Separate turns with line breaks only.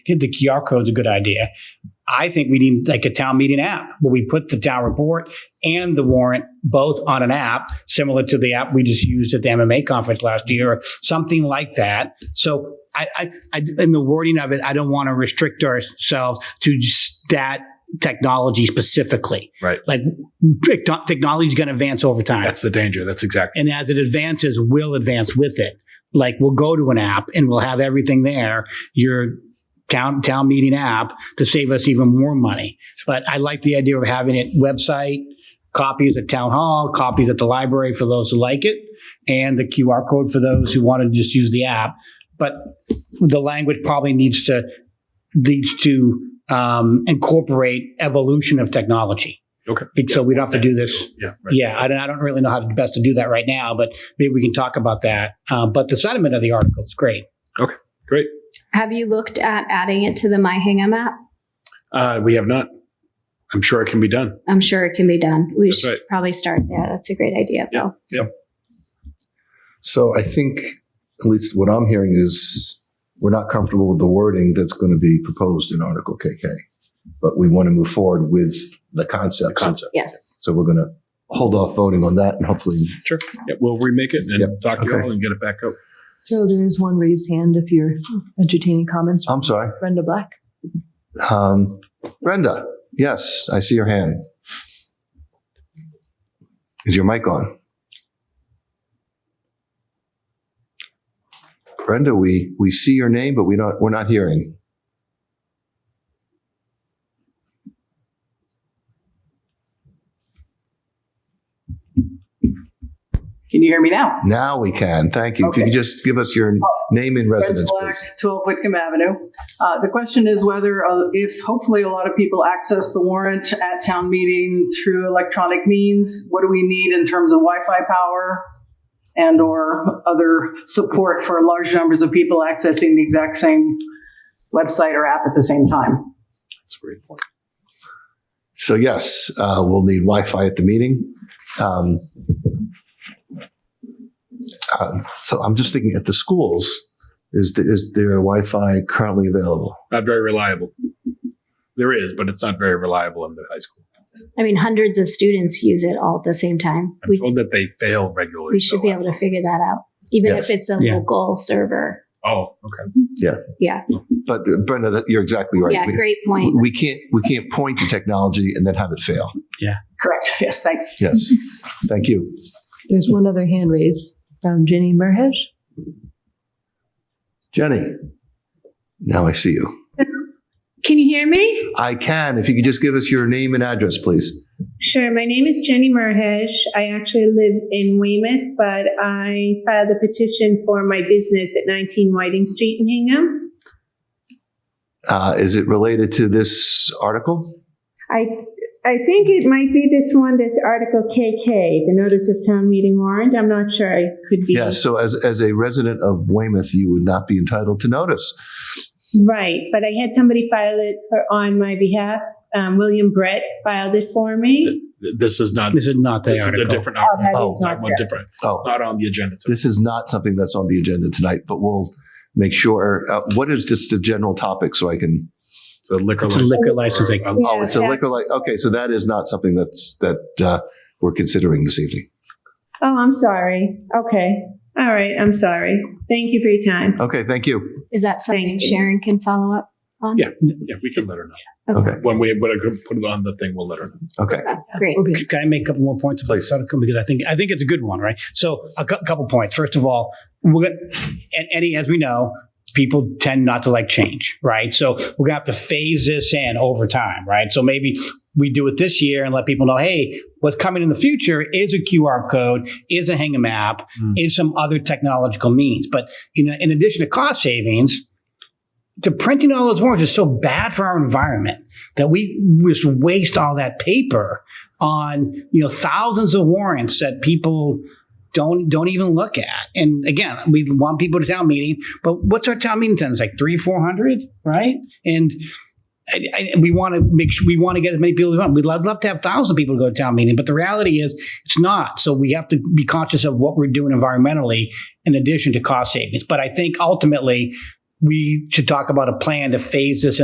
the QR code's a good idea. I think we need like a town meeting app where we put the town report and the warrant both on an app, similar to the app we just used at the MMA conference last year, or something like that. So I, I, I in the wording of it, I don't want to restrict ourselves to just that technology specifically.
Right.
Like technology is going to advance over time.
That's the danger. That's exactly.
and as it advances, we'll advance with it. Like we'll go to an app and we'll have everything there. Your town town meeting app to save us even more money. But I like the idea of having it website copies at town hall, copies at the library for those who like it, and the QR code for those who want to just use the app. But the language probably needs to needs to um, incorporate evolution of technology.
Okay.
So we don't have to do this.
Yeah. Right.
Yeah, I don't, I don't really know how to best to do that right now, but maybe we can talk about that. Uh, but the sentiment of the article is great.
Have you looked at adding it to the My Hingham app?
Uh, we have not. I'm sure it can be done.
I'm sure it can be done. We
That's
should
right.
probably start there. That's a great idea,
Yeah.
Bill.
So I think, at least what I'm hearing is, we're not comfortable with the wording that's going to be proposed in Article KK, but we want to move forward with the
The
concept.
concept.
Yes.
So we're going to hold off voting on that and hopefully,
Sure. Yeah, we'll remake it and
Yep.
talk to
Okay.
y'all and get it back up.
So there is one raised hand if you're entertaining comments.
I'm sorry.
Brenda Black.
Um, Brenda, yes, I see your hand. Is your mic on? Brenda, we, we see your name, but we don't, we're not hearing.
Can you hear me now?
Now we can. Thank you. If you could just give us your name and residence,
Fred
please.
Black, 12 Whitcomb Avenue. Uh, The question is whether, uh, if hopefully a lot of people access the warrant at town meeting through electronic means, what do we need in terms of Wi-Fi power and/or other support for large numbers of people accessing the exact same website or app at the same time?
That's a great point.
So yes, uh, we'll need Wi-Fi at the meeting. Um, uh, so I'm just thinking at the schools, is, th- is there Wi-Fi currently available?
Not very reliable. There is, but it's not very reliable in the high school.
I mean, hundreds of students use it all at the same time.
I'm
We,
told that they fail regularly.
we should be
so-
able to figure that out, even
Yes.
if it's a
Yeah.
local server.
Oh, okay.
But uh, Brenda, that, you're exactly right.
Yeah,
we,
great point.
we can't we can't point to technology and then have it fail.
Correct. Yes, thanks.
Yes, thank you.
There's one other hand raised from Jenny Merhesh.
Jenny, now I see you.
Can you hear me?
I can. If you could just give us your name and address, please.
Sure. My name is Jenny Marhesh. I actually live in Weymouth, but I filed a petition for my business at 19 Whiting Street in Hingham.
Uh, is it related to this article?
I I think it might be this one that's Article KK, the notice of town meeting warrant. I'm not sure. I could be
Yes. So as as a resident of Weymouth, you would not be entitled to notice.
right, but I had somebody file it for, on my behalf. Um, William Brett filed it for me.
Th- This is not.
This is not the
This is
article.
a different.
that
article.
is
Oh,
not
Talking about
there.
different. It's
Oh,
not on the agenda. tonight.
this is not something that's on the agenda tonight, but we'll make sure. Uh, what is just the general topic so I can?
It's a liquor
It's a
license.
liquor licensing.
Or-
Oh, it's a
Yeah.
liquor like. Okay, so that is not something that's that uh, we're considering this evening.
Oh, I'm sorry. Okay. All right. I'm sorry. Thank you for your time.
Okay, thank you.
Is that something
Thank you.
Sharon can follow up on?
Yeah. Yeah, we can let her know.
Okay,
When we when I put it on the thing, we'll let her know.
okay.
Great.
Will be
Can I make a couple more points? about
Please.
this article? Because I think, I think it's a good one, right? So a cou- couple points. First of all, we're gonna, and Eddie, as we know, people tend not to like change, right? So we're gonna have to phase this in over time, right? So maybe we do it this year and let people know, hey, what's coming in the future is a QR code, is a Hingham app,
Mm.
is some other technological means. But you know, in addition to cost savings, the printing all those warrants is so bad for our environment that we just waste all that paper on you know thousands of warrants that people don't don't even look at. And again, we want people to town meeting, but what's our town meeting attendance like three four hundred, right? And I, I, we want to make sure we want to get as many people as we want. We'd love, love to have thousand people to go to town meeting, but the reality is it's not. So we have to be conscious of what we're doing environmentally in addition to cost savings. But I think ultimately we should talk about a plan to phase this in.